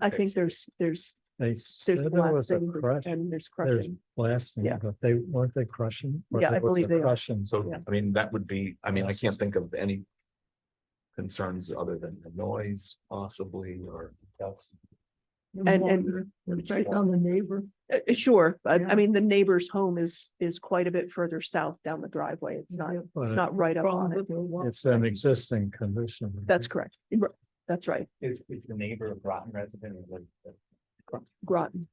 I think there's, there's, They said there's there was a blasting crush, and there's there's crushing. blasting, Yeah. but they, weren't they crushing? Or Yeah, there I was believe a they are. Crushing, so So, Yeah. I mean, that would be, I mean, I Yes. can't think of any. Concerns other than the noise possibly or. And, and, Right on the neighbor. uh, uh, sure, but Yeah. I mean, the neighbor's home is, is quite a bit further south down the driveway. It's not, it's not right up on it. it's an existing condition. That's correct. Ro- That's right, It's, it's the neighbor of Groton resident, or like, the- Groton.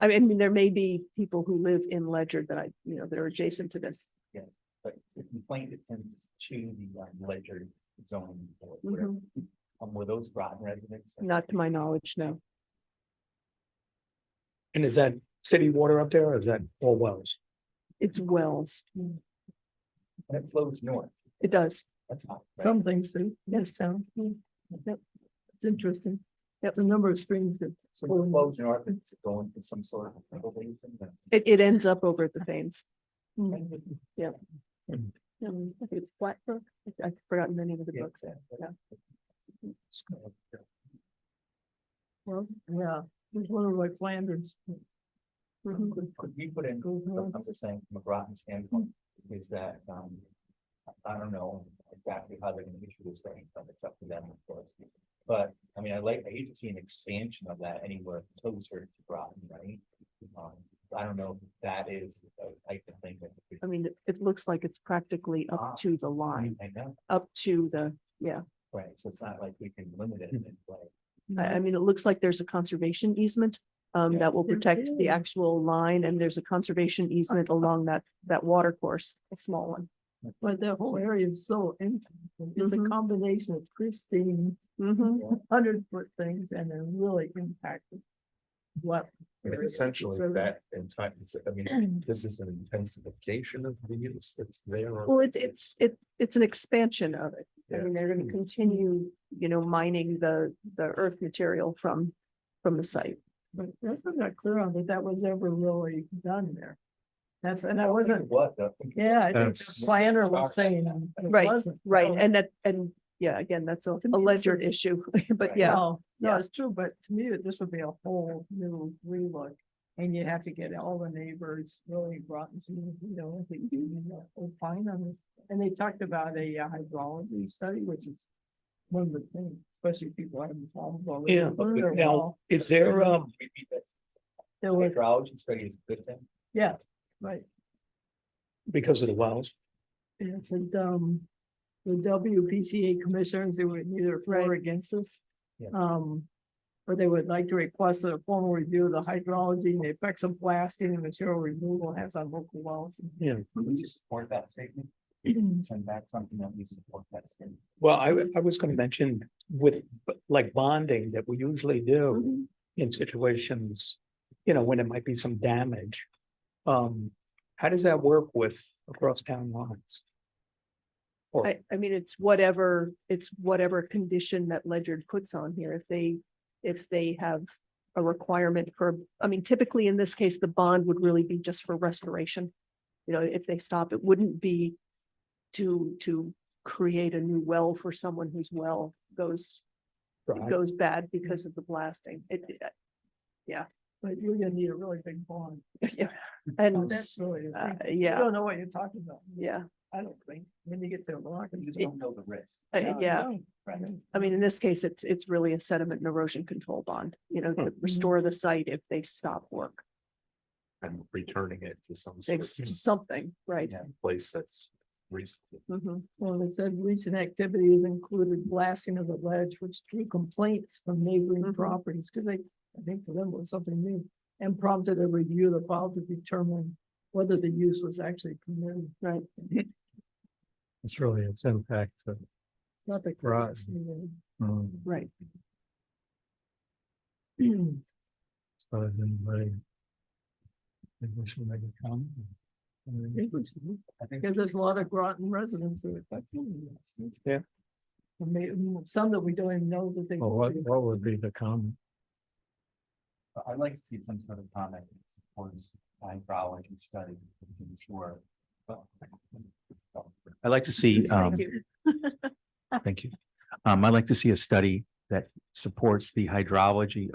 I mean, I mean, there may be people who live in Ledger that I, you know, that are adjacent to this. but the complaint it sends to the um, ledger zoning board. whatever. Mm-hmm. Mhm. Um, were those Groton residents? Not to my knowledge, no. And is that city water up there or is that all wells? It's Wells. Hmm. And it flows north. It does. That's not. right. Hmm. Some things do, yes, sound. It's interesting. Yep, the number of streams that. So it flows north, it's going to some sort of. revelation, but- It, it ends up over at the Thames. Hmm. Um, I think It's Blackbrook. I- I've forgotten the name of the Yeah, book. exactly. Yeah. It's kind of- Well, yeah, there's one over like Flanders. Mm-hmm. Could could we put in, what I'm just saying, from a Groton standpoint, is that, um, I- I don't know exactly how they're gonna issue this thing, but it's up to them, of course. But, I mean, I like, I hate to see an expansion of that anywhere closer to Groton, right? Um, I don't know if that is a type of thing that. we I mean, it- it looks like it's practically Ah. up to the line, I know, Hmm. up to the, yeah. right, so it's not like we can limit it in like. I, I mean, it looks like there's a conservation easement um, Yeah. that will There protect the is. actual line and there's a conservation easement along that, that water course, a small one. But that whole area is so interesting. It's a Mhm. combination of pristine Mhm. hundred foot things and they're really impacted. What? I mean, area. Essentially, So- that entire, it's- I mean, this is an intensification of the use that's there. or- Well, it's, it's, it, it's an expansion of it. I Yeah. mean, they're gonna continue, you know, mining the, the earth material from, from the site. But that's I'm not clear on that that was ever really done there. That's, and I I think wasn't, it was, I think yeah, I think That's- the planner was saying um, it Right, wasn't. Right, so- and that, and yeah, again, that's a To me, a this ledger is- issue, but Right. yeah. No, no, yeah. it's true, but to me, this would be a whole new relook. And you have to get all the neighbors really brought into, you know, I Mhm. think, you know, opine on this. And they talked about a uh, hydrology study, which is one of the things, especially people having problems already. Yeah, with their now- well. Is there, um, we beat that. There were, Hydrology study is a good thing. yeah, right. because of the wells, And it's like, um, the WPCA commissioners, they were neither for or against this. Yeah. Um, but they would like to request a formal review of the hydrology and the effects of blasting and material removal has on local wells. Yeah. Would we just support that statement? Send back something that we support that statement. Well, I, w- I was gonna mention with, b- like bonding that we usually do in situations, you know, when it might be some damage. Um, how does that work with across town lines? Or, I, I mean, it's whatever, it's whatever condition that Ledger puts on here. If they, if they have a requirement for, I mean, typically in this case, the bond would really be just for restoration. You know, if they stop, it wouldn't be to, to create a new well for someone whose well goes, Right. goes bad because of the blasting. It, it- But you're gonna need a really big bond. yeah, and, That's really, the uh, thing. you yeah, don't know what you're talking about. yeah. I don't think, when you get to Iraq. You just don't know the risk. Uh, yeah. Right. I mean, in this case, it's, it's really a sediment and erosion control bond, you know, Hmm. to restore the site if they stop work. And returning it to some sort It's of just something, right? Yeah. place that's reasonable. Mhm. Well, it said recent activities included blasting of the ledge, which drew complaints from neighboring Mhm. properties, because they, I think for them it was something new. And prompted a review of the file to determine whether the use was actually permitted. Right. It's really its impact to. Not the. Right. courts, you know. um, Right. so does anybody- Think we should make a comment? I mean, I think Because there's a lot of Groton residents who are like. "Hmm, that's neat." Yeah. And may- mm, some that we don't even know that they. Well, what, what would be the comment? I'd like to see some sort of comment that supports hydrology study, I'm sure. I'd like to see, um. Thank you. Um, I'd like to see a study that supports the hydrology